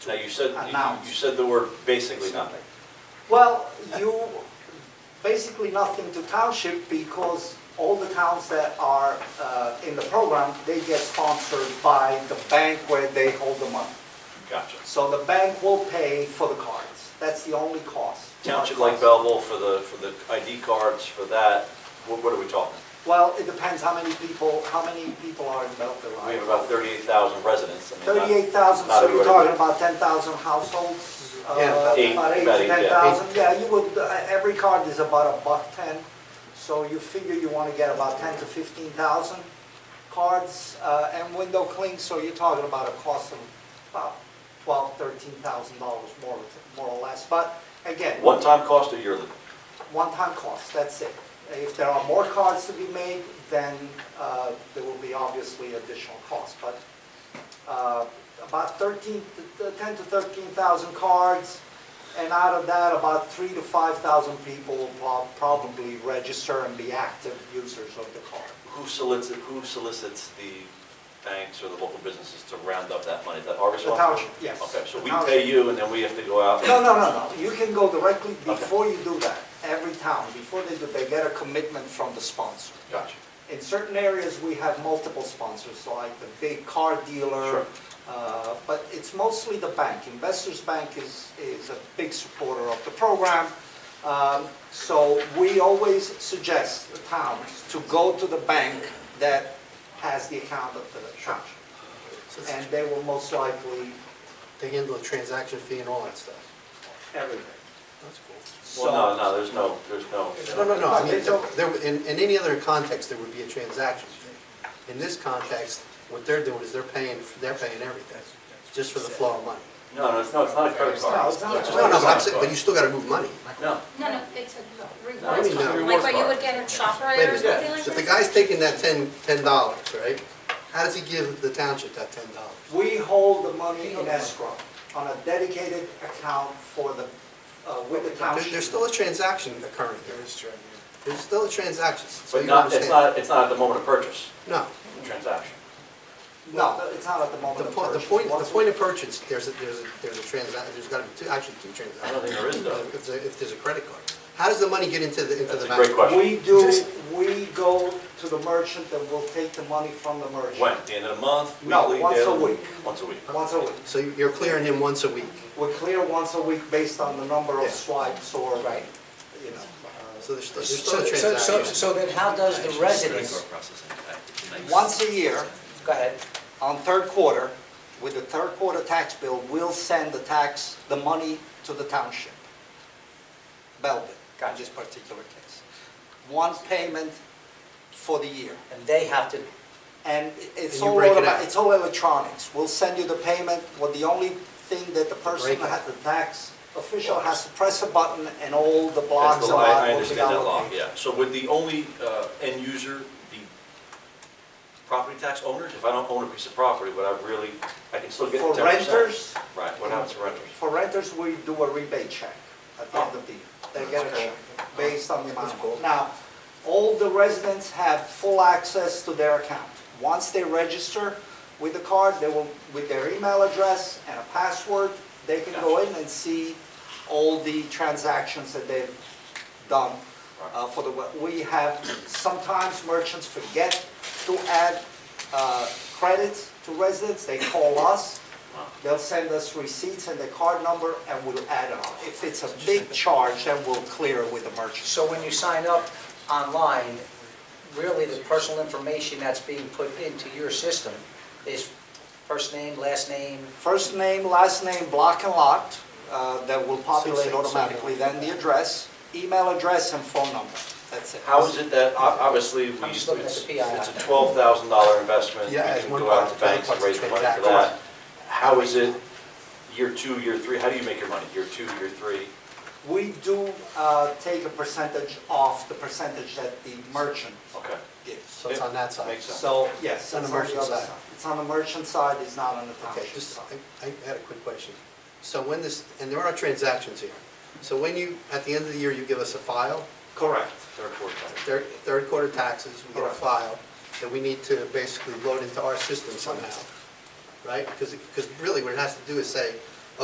Now, you said, you- Announce. you said the word basically nothing. Well, you, basically nothing to township because all the towns that are uh, in the program, they get sponsored by the bank where they hold the money. Gotcha. So the bank will pay for the cards. That's the only cost. Township like Belleville for the, for the ID cards, for that, what, what are we talking? Well, it depends how many people, how many people are in Belleville. We have about thirty-eight thousand residents. I mean, not- Thirty-eight thousand, not so you're everybody- talking about ten thousand households? uh, Yeah, about eight, About eight about to eight, ten yeah. thousand, yeah, you would, uh, every card is about a buck ten. So you figure you wanna get about ten to fifteen thousand cards, uh, and window clings, so you're talking about a cost of about twelve, thirteen thousand dollars more, or- more or less. But again, One-time cost or yearly? one-time cost, that's it. If there are more cards to be made, then uh, there will be obviously additional costs, but uh, about 13, to- to 10 to 13,000 cards, and out of that, about 3 to 5,000 people will prob- probably register and be active users of the card. Who solicits, who solicits the banks or the local businesses to round up that money? Is that our responsibility? township, yes. Okay, so The we township. pay you and then we have to go out? and- No, no, no, no, you can go directly Okay. before you do that, every town, before they do, they get a commitment from the sponsor. Gotcha. In certain areas, we have multiple sponsors, so like the big car Sure. dealer, uh, but it's mostly the bank. Investors Bank is, is a big supporter of the program. Um, So we always suggest the towns to go to the bank that has the account of the township. So And it's- they will most likely They handle the transaction fee and all that stuff. everything. That's cool. Well, no, no, there's no, there's no. No, no, no, I mean, They don't- there, in, in any other context, there would be a transaction fee. In this context, what they're doing is they're paying, they're paying everything, just for the flow of money. No, no, it's not, it's not a credit No, card. it's not. It's just No, no, a but I'm credit saying, card. but you still gotta move money. No, No, no, it's a No, reward, it's not a like reward what you card. would get at Wait ShopRite a or minute. something like that. So if the guy's taking that ten, ten dollars, right? How does he give the township that ten dollars? We hold the money in escrow on a dedicated account for the, uh, with the There, township. there's still a transaction occurring here. There's still a transaction, so but you not, it's understand. not, it's not at the moment of purchase, No, transaction. No, it's not at the moment the of point, the purchase. point, the Once we- point of purchase, there's a, there's a, there's a transaction, there's gotta be two, actually two transactions. I don't think there is though. If, there's a- if there's a credit card. How does the money get into the, into That's the a bank? great question. We do, we go to the merchant and we'll take the money from the merchant. When, the end of the month? No, weekly, once a daily? week. Once a week. Once a week. So you- you're clearing him once a week. We clear once a week based on the number of Yeah. swipes or, you know. Right. uh, So there's still, there's still So, a so, so, transaction. so then how does the residents, Once a year, go ahead, on third quarter, with the third quarter tax bill, we'll send the tax, the money to the township. Belleville, in this particular case. One payment for the year. and they have to, And it's And you all, break it automa- out. it's all electronics. We'll send you the payment, well, the only thing that the person, Break it. has- the tax official has to press a button and all the blocks That's the and law, lot I will be understand that law, allocated. yeah. So would the only uh, end user be property tax owners? If I don't own a piece of property, would I really, I can still get For ten percent? renters, Right, what happens to renters? for renters, we do a rebate check at the end of the year. They get a check based on the amount. Now, all the residents have full access to their account. Once they register with the card, they will, with their email address and a password, they can go in and see all the transactions that they've done uh, for the, we- we have, sometimes merchants forget to add uh, credits to residents, they call us, they'll send us receipts and the card number, and we'll add it on. If it's a big charge, then we'll clear it with the merchant. so when you sign up online, really the personal information that's being put into your system is first name, last name, First name, last name, block and lot, uh, that will populate automatically, then the address, email address, and phone number, that's it. How is it that, ob- obviously, we, I'm it's just looking at it's the PI. a twelve thousand dollar investment, we Yeah, as can one go out part, to banks the other and raise the money part's for the that. How is it year two, year three, how do you make your money, year two, year three? We do uh, take a percentage off the percentage that the merchant Okay, gives. So it's on that side. Makes sense. So, yes, It's on it's the on the merchant other side. side. It's on the merchant side, it's not on the Okay, township just, side. I, I had a quick question. So when this, and there are transactions here. So when you, at the end of the year, you give us a file, Correct. third quarter. third, third quarter taxes, we get a Correct. file that we need to basically load into our system somehow, right? Because, because really what it has to do is say,